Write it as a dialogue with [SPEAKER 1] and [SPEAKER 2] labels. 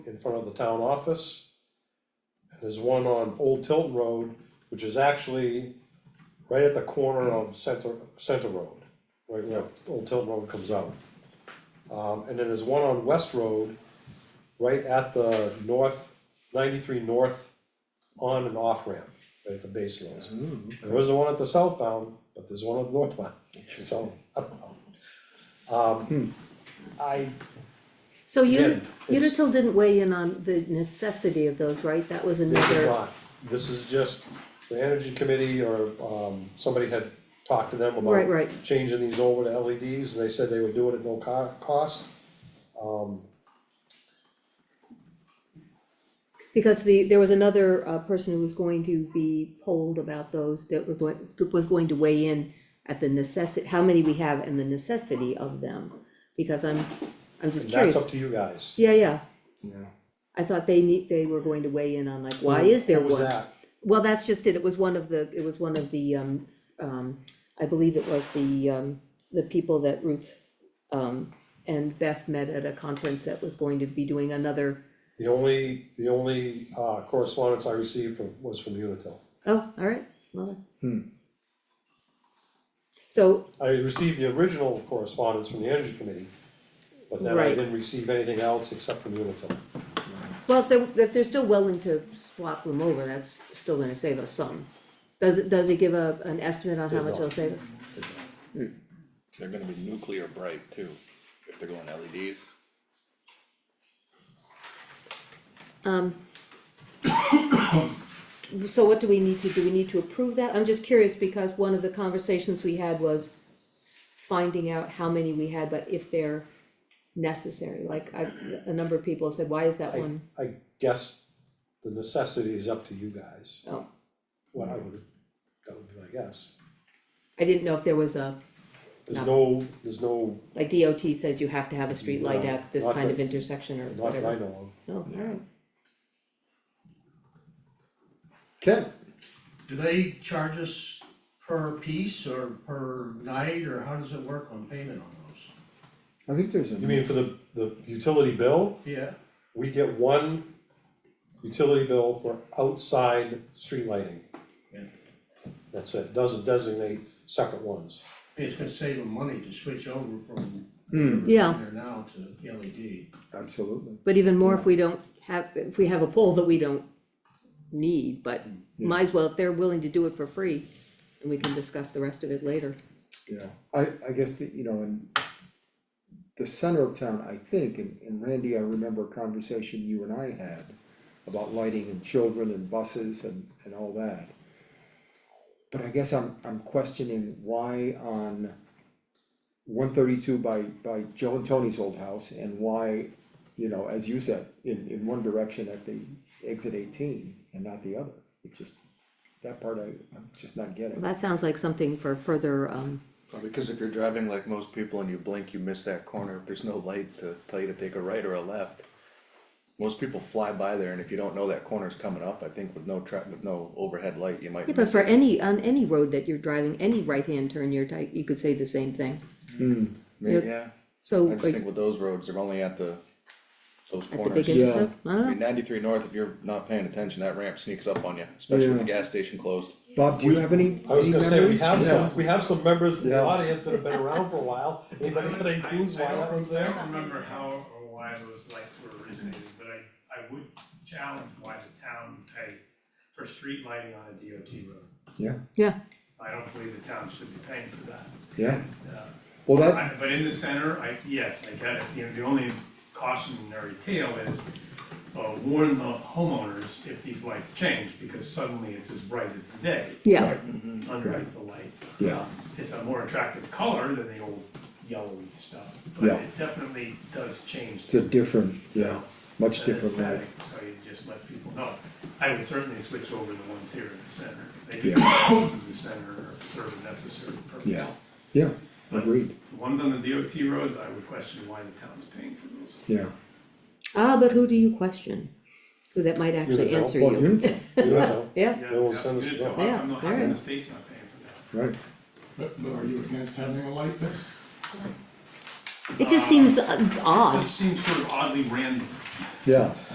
[SPEAKER 1] in front of the town office. And there's one on Old Tilton Road, which is actually right at the corner of Center, Center Road, right where Old Tilton Road comes out. Um, and then there's one on West Road, right at the north, ninety-three north on and off ramp, right at the base lanes. There is one at the southbound, but there's one at the northbound, so, I don't know. Um, I,
[SPEAKER 2] So Uni-
[SPEAKER 1] again, it's,
[SPEAKER 2] Unitil didn't weigh in on the necessity of those, right? That was
[SPEAKER 1] this is
[SPEAKER 2] another,
[SPEAKER 1] not, this is just, the energy committee or, um, somebody had talked to them about
[SPEAKER 2] right, right,
[SPEAKER 1] changing these over to LEDs, and they said they would do it at no co- cost. Um,
[SPEAKER 2] because the, there was another uh person who was going to be polled about those that were going, that was going to weigh in at the necessi- how many we have and the necessity of them, because I'm, I'm just
[SPEAKER 1] and
[SPEAKER 2] curious.
[SPEAKER 1] that's up to you guys.
[SPEAKER 2] Yeah, yeah,
[SPEAKER 3] Yeah.
[SPEAKER 2] I thought they need, they were going to weigh in on like, why is there
[SPEAKER 1] What was
[SPEAKER 2] one?
[SPEAKER 1] that?
[SPEAKER 2] Well, that's just it, it was one of the, it was one of the, um, um, I believe it was the, um, the people that Ruth, um, and Beth met at a conference that was going to be doing another,
[SPEAKER 1] The only, the only, uh, correspondence I received from, was from Unitil.
[SPEAKER 2] oh, all right, well.
[SPEAKER 3] Hmm.
[SPEAKER 2] So,
[SPEAKER 1] I received the original correspondence from the energy committee, but then I
[SPEAKER 2] Right.
[SPEAKER 1] didn't receive anything else except from Unitil.
[SPEAKER 2] well, if they're, if they're still willing to swap them over, that's still gonna save us some. Does it, does it give a, an estimate on how
[SPEAKER 1] They
[SPEAKER 2] much
[SPEAKER 1] don't.
[SPEAKER 2] it'll save us?
[SPEAKER 4] They're gonna be nuclear bright too, if they're going E LEDs.
[SPEAKER 2] Um. So what do we need to, do we need to approve that? I'm just curious because one of the conversations we had was finding out how many we had, but if they're necessary, like I, a number of people said, why is that
[SPEAKER 1] I,
[SPEAKER 2] one?
[SPEAKER 1] I guess the necessity is up to you guys,
[SPEAKER 2] Oh,
[SPEAKER 1] what I would, that would be my guess.
[SPEAKER 2] I didn't know if there was a,
[SPEAKER 1] There's no, there's no,
[SPEAKER 2] like DOT says you have to have a street light
[SPEAKER 1] No,
[SPEAKER 2] at this
[SPEAKER 1] not
[SPEAKER 2] kind
[SPEAKER 1] that-
[SPEAKER 2] of intersection or
[SPEAKER 1] not that I
[SPEAKER 2] whatever.
[SPEAKER 1] know
[SPEAKER 2] Oh, alright,
[SPEAKER 3] Okay,
[SPEAKER 5] Do they charge us per piece or per night, or how does it work on payment on those?
[SPEAKER 3] I think there's a.
[SPEAKER 1] of. You mean for the, the utility bill,
[SPEAKER 5] Yeah,
[SPEAKER 1] we get one utility bill for outside street lighting.
[SPEAKER 5] Yeah.
[SPEAKER 1] That's it, doesn't designate separate ones.
[SPEAKER 5] it's gonna save them money to switch over from
[SPEAKER 3] Hmm.
[SPEAKER 2] Yeah.
[SPEAKER 5] there now to E LED.
[SPEAKER 3] Absolutely.
[SPEAKER 2] but even more if we don't have, if we have a pole that we don't need, but might as well, if they're willing to do it for free, and we can discuss the rest of it later.
[SPEAKER 3] Yeah, I, I guess that, you know, in the center of town, I think, and, and Randy, I remember a conversation you and I had about lighting and children and buses and, and all that. But I guess I'm, I'm questioning why on one thirty-two by, by Joe and Tony's old house and why, you know, as you said, in, in one direction at the exit eighteen and not the other. It just, that part I, I'm just not
[SPEAKER 2] Well,
[SPEAKER 3] getting.
[SPEAKER 2] That sounds like something for further, um,
[SPEAKER 4] Well, because if you're driving like most people and you blink, you miss that corner, if there's no light to tell you to take a right or a left. Most people fly by there and if you don't know that corner's coming up, I think with no tra- with no overhead light, you might
[SPEAKER 2] yeah, but
[SPEAKER 4] miss
[SPEAKER 2] for
[SPEAKER 4] it.
[SPEAKER 2] any, on any road that you're driving, any right-hand turn you're tight, you could say the same thing.
[SPEAKER 4] May- Yeah,
[SPEAKER 2] So,
[SPEAKER 4] I just
[SPEAKER 2] like,
[SPEAKER 4] think with those roads, they're only at the, those
[SPEAKER 2] at the
[SPEAKER 4] corners.
[SPEAKER 2] big
[SPEAKER 3] Yeah.
[SPEAKER 2] intersection, I
[SPEAKER 4] I
[SPEAKER 2] don't
[SPEAKER 4] mean,
[SPEAKER 2] know,
[SPEAKER 4] ninety-three north, if you're not paying attention, that ramp sneaks up on you, especially with the gas station closed.
[SPEAKER 3] Bob, do you have any,
[SPEAKER 1] I was
[SPEAKER 3] any
[SPEAKER 1] gonna say, we
[SPEAKER 3] memories?
[SPEAKER 1] have
[SPEAKER 3] Yeah.
[SPEAKER 1] some, we have some members in the
[SPEAKER 3] Yeah.
[SPEAKER 1] audience that have been around for a while, anybody got any clues why that one's
[SPEAKER 6] I
[SPEAKER 1] there?
[SPEAKER 6] don't remember how or why those lights were originated, but I, I would challenge why the town would pay for street lighting on a DOT road.
[SPEAKER 3] Yeah.
[SPEAKER 2] Yeah.
[SPEAKER 6] I don't believe the town should be paying for that.
[SPEAKER 3] Yeah,
[SPEAKER 6] Uh,
[SPEAKER 3] well, that,
[SPEAKER 6] I- But in the center, I, yes, I get it, you know, the only cautionary tale is uh, warn the homeowners if these lights change, because suddenly it's as bright as the day,
[SPEAKER 2] yeah,
[SPEAKER 6] unlike the light.
[SPEAKER 3] yeah,
[SPEAKER 6] It's a more attractive color than the old yellowy stuff, but
[SPEAKER 3] Yeah.
[SPEAKER 6] it definitely does change
[SPEAKER 3] it's a different, yeah, much
[SPEAKER 6] an
[SPEAKER 3] different light.
[SPEAKER 6] aesthetic, So you just let people know. I would certainly switch over the ones here in the center, because they do,
[SPEAKER 3] Yeah.
[SPEAKER 6] the ones in the center are serve a necessary purpose.
[SPEAKER 3] Yeah. Yeah, agreed,
[SPEAKER 6] The ones on the DOT roads, I would question why the town's paying for those.
[SPEAKER 3] yeah.
[SPEAKER 2] ah, but who do you question? Who that might actually
[SPEAKER 1] Unitil.
[SPEAKER 2] answer
[SPEAKER 3] Well,
[SPEAKER 2] you,
[SPEAKER 3] Unitil,
[SPEAKER 1] Yeah.
[SPEAKER 2] yeah,
[SPEAKER 1] They won't send us
[SPEAKER 6] you
[SPEAKER 1] a
[SPEAKER 6] did tell-
[SPEAKER 1] bill.
[SPEAKER 2] Yeah,
[SPEAKER 6] I'm not,
[SPEAKER 2] alright.
[SPEAKER 6] I'm the state's not paying for that.
[SPEAKER 3] right,
[SPEAKER 7] But but are you against having a light there?
[SPEAKER 2] it just seems uh, odd.
[SPEAKER 6] This seems sort of oddly random.
[SPEAKER 3] yeah.